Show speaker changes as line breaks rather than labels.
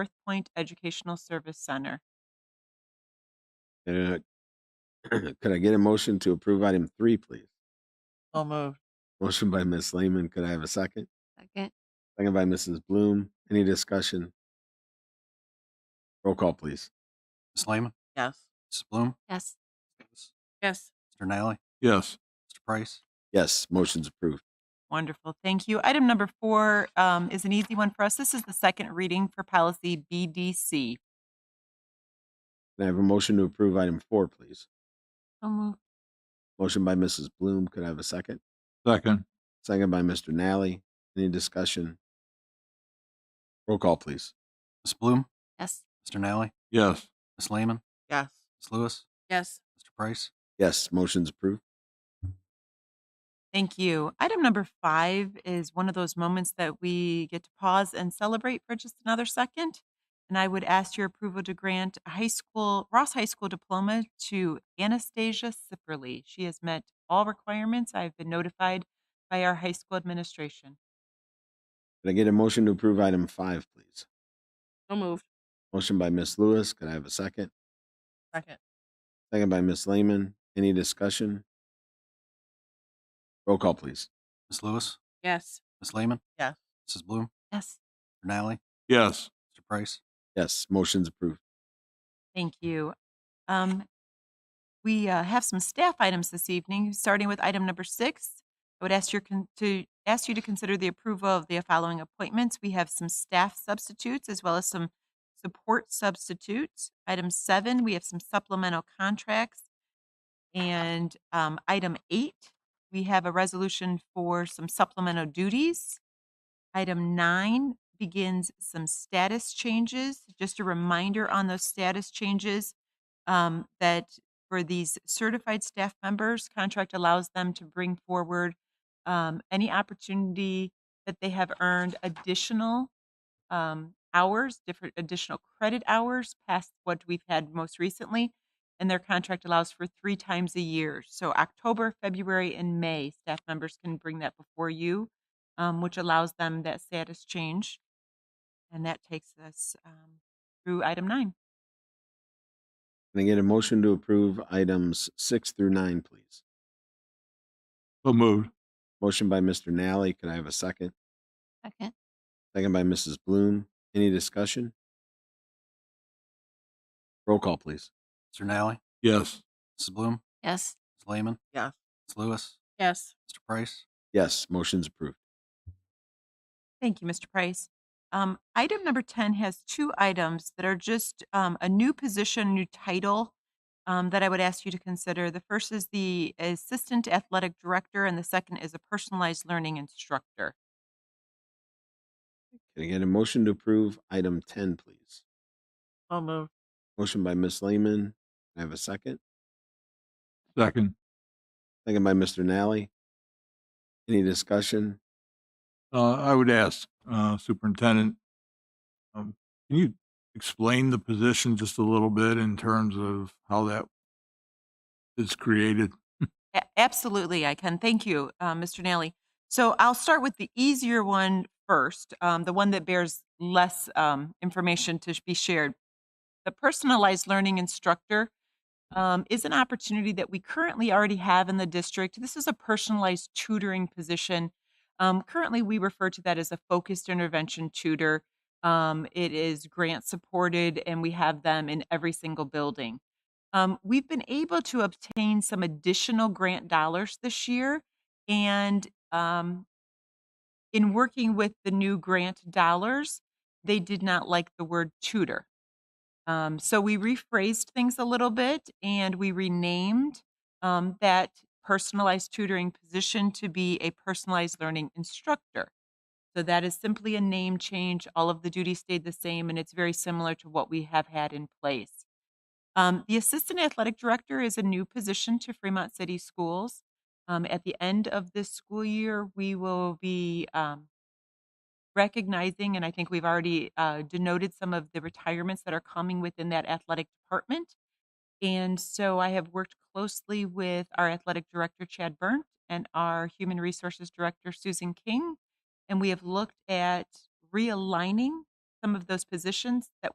North Point Educational Service Center.
Uh, Could I get a motion to approve item three, please?
Oh,
So moved.
Motion by Ms. Lehman. Could I have a second?
Second.
Second by Mrs. Bloom. Any discussion? Roll call, please.
Ms. Lehman,
Yes.
Mrs. Bloom,
Yes.
Davis,
Yes.
Mr. Nally,
Yes.
Mr. Price,
Yes, motion's approved.
Wonderful. Thank you. Item number four um, is an easy one for us. This is the second reading for policy BDC.
Can I have a motion to approve item four, please?
So moved.
Motion by Mrs. Bloom. Could I have a second?
Second.
Second by Mr. Nally. Any discussion? Roll call, please.
Ms. Bloom,
Yes.
Mr. Nally,
Yes.
Ms. Lehman,
Yes.
Ms. Lewis,
Yes.
Mr. Price,
Yes, motion's approved.
Thank you. Item number five is one of those moments that we get to pause and celebrate for just another second. And I would ask your approval to grant a high school, Ross High School diploma to Anastasia Sipperly. She has met all requirements. I've been notified by our high school administration.
Can I get a motion to approve item five, please?
So moved.
Motion by Ms. Lewis. Could I have a second?
Second.
Second by Ms. Lehman. Any discussion? Roll call, please.
Ms. Lewis,
Yes.
Ms. Lehman,
Yes.
Mrs. Bloom,
Yes.
Mr. Nally,
Yes.
Mr. Price,
Yes, motion's approved.
Thank you. Um, We uh, have some staff items this evening, starting with item number six. I would ask your, con- to, ask you to consider the approval of the following appointments. We have some staff substitutes as well as some support substitutes. Item seven, we have some supplemental contracts. And um, item eight, we have a resolution for some supplemental duties. Item nine begins some status changes. Just a reminder on those status changes um, that for these certified staff members, contract allows them to bring forward um, any opportunity that they have earned additional um, hours, different additional credit hours past what we've had most recently. And their contract allows for three times a year. So October, February, and May, staff members can bring that before you um, which allows them that status change. And that takes us um, through item nine.
Can I get a motion to approve items six through nine, please?
So moved.
Motion by Mr. Nally. Could I have a second?
Second.
Second by Mrs. Bloom. Any discussion? Roll call, please.
Mr. Nally,
Yes.
Mrs. Bloom,
Yes.
Ms. Lehman,
Yes.
Ms. Lewis,
Yes.
Mr. Price,
Yes, motion's approved.
Thank you, Mr. Price. Um, item number 10 has two items that are just um, a new position, new title um, that I would ask you to consider. The first is the assistant athletic director, and the second is a personalized learning instructor.
Can I get a motion to approve item ten, please?
I'll move.
Motion by Ms. Lehman. Can I have a second?
Second.
Second by Mr. Nally. Any discussion?
Uh, I would ask, uh, Superintendent, um, can you explain the position just a little bit in terms of how that is created?
A- Absolutely, I can. Thank you, uh, Mr. Nally. So I'll start with the easier one first, um, the one that bears less um, information to be shared. The personalized learning instructor um, is an opportunity that we currently already have in the district. This is a personalized tutoring position. Um, currently, we refer to that as a focused intervention tutor. Um, it is grant supported, and we have them in every single building. Um, we've been able to obtain some additional grant dollars this year. And um, in working with the new grant dollars, they did not like the word tutor. Um, so we rephrased things a little bit and we renamed um, that personalized tutoring position to be a personalized learning instructor. So that is simply a name change. All of the duties stayed the same and it's very similar to what we have had in place. Um, the assistant athletic director is a new position to Fremont City Schools. Um, at the end of this school year, we will be um, recognizing, and I think we've already uh, denoted some of the retirements that are coming within that athletic department. And so I have worked closely with our athletic director, Chad Burnt, and our human resources director, Susan King. And we have looked at realigning some of those positions that